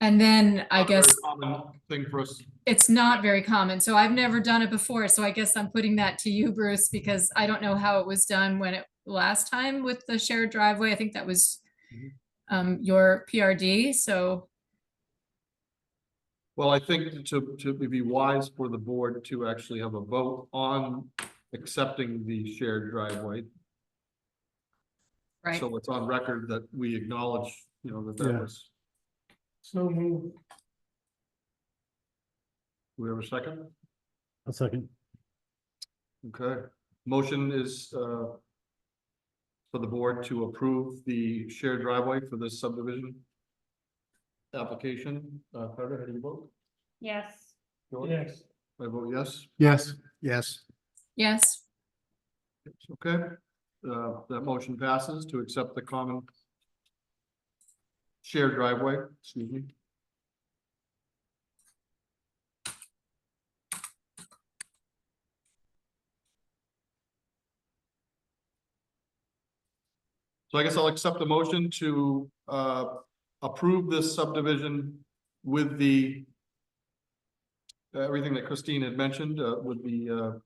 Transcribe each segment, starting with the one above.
And then I Not very guess common Thing for us. it's not very common, so I've never done it before, so I guess I'm putting that to you, Bruce, because I don't know how it was done when it, last time with the shared driveway, I think that was Mhm. um, your PRD, so, Well, I think to, to it'd be wise for the board to actually have a vote on accepting the shared driveway. right, So it's on record that we acknowledge, you know, that that Yeah. was, So move. we have a second? A second. Okay, motion is, uh, for the board to approve the shared driveway for this subdivision application. Uh, Carter, how do you vote? Yes, George? I vote yes. Yes, yes. yes, Okay, uh, that motion passes to accept the common shared driveway, excuse me. So I guess I'll accept the motion to, uh, approve this subdivision with the uh, everything that Christine had mentioned, uh, with the, uh,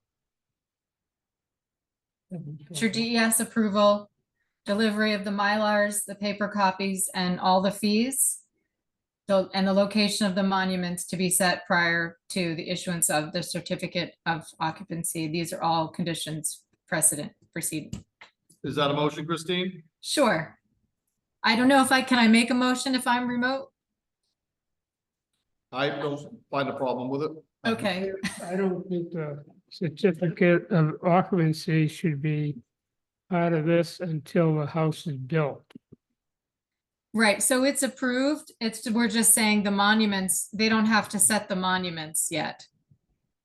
it's your DES approval, delivery of the Mylars, the paper copies, and all the fees, the- and the location of the monuments to be set prior to the issuance of the certificate of occupancy, these are all conditions precedent, preceding. Is that a motion, Christine? Sure. I don't know if I, can I make a motion if I'm remote? I don't find a problem with it. Okay, I don't think the certificate of occupancy should be part of this until the house is built. right, so it's approved. It's, we're just saying the monuments, they don't have to set the monuments yet.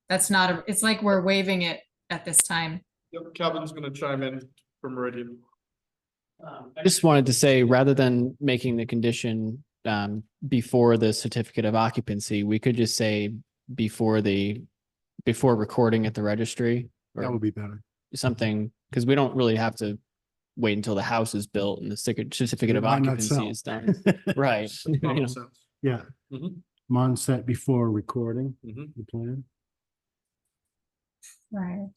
That's not, a. it's like we're waiving it at this time. Yep, Kevin's gonna chime in from Meridian. I just wanted to say, rather than making the condition um before the certificate of occupancy, we could just say before the before recording at the registry That or would be better. something, because we don't really have to wait until the house is built and the certi- certificate It of might not occupancy sell. is done. Right. You Common know, sense. Yeah, Mhm, Mon set before recording mhm. the plan. Right.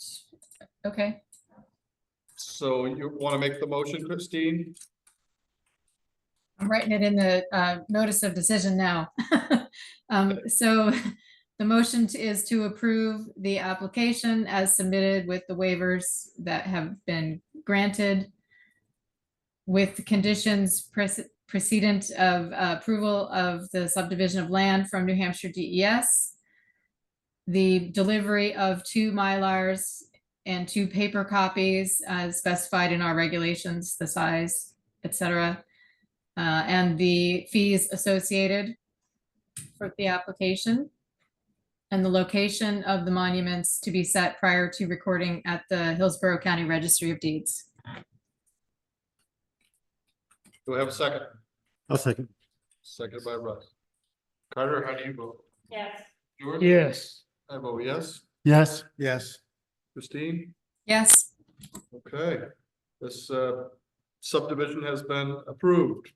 Okay, So you wanna make the motion, Christine? I'm writing it in the uh, notice of decision now. Um, So the motion t- is to approve the application as submitted with the waivers that have been granted with the conditions prece- precedent of uh, approval of the subdivision of land from New Hampshire DES, the delivery of two Mylars and two paper copies as specified in our regulations, the size, et cetera, uh, and the fees associated for the application and the location of the monuments to be set prior to recording at the Hillsborough County Registry of Deeds. Do I have a second? A second. Second by Russ. Carter, how do you vote? yes, George? Yes, I vote yes. Yes. Yes. Christine? Yes, Okay, this uh, subdivision has been approved.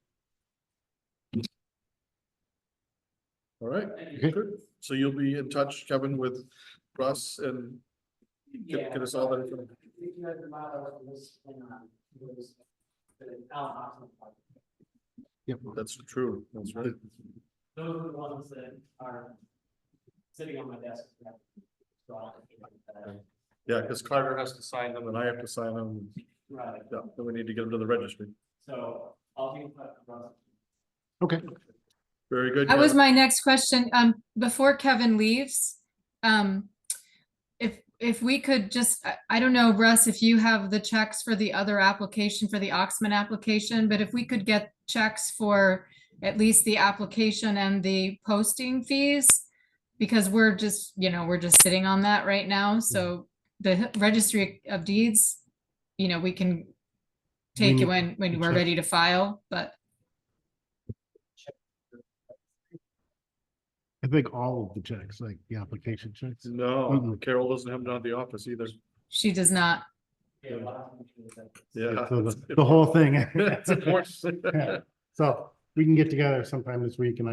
All right, good. so you'll be in touch, Kevin, with Russ and get get us all that. information. uh, Yep, that's true, that's right. Those are the ones that are sitting on my desk. So I'll- Yeah, because Carter has to sign them and I have to sign them, Right, yeah, then we need to get them to the registry. so I'll be in touch with Russ. Okay. Very good. that was Kevin. my next question. Um, before Kevin leaves, um, if, if we could just, I, I don't know, Russ, if you have the checks for the other application, for the Oxman application, but if we could get checks for at least the application and the posting fees, because we're just, you know, we're just sitting on that right now, so the registry of deeds, you know, we can take need it when, when we're check. ready to file, but I think all of the checks, like the application checks. No, Mhm. Carol doesn't have them down at the office either. she does not. Yeah, a lot of them should have been. Yeah. So The the whole thing. It's important. So we can get together sometime this week and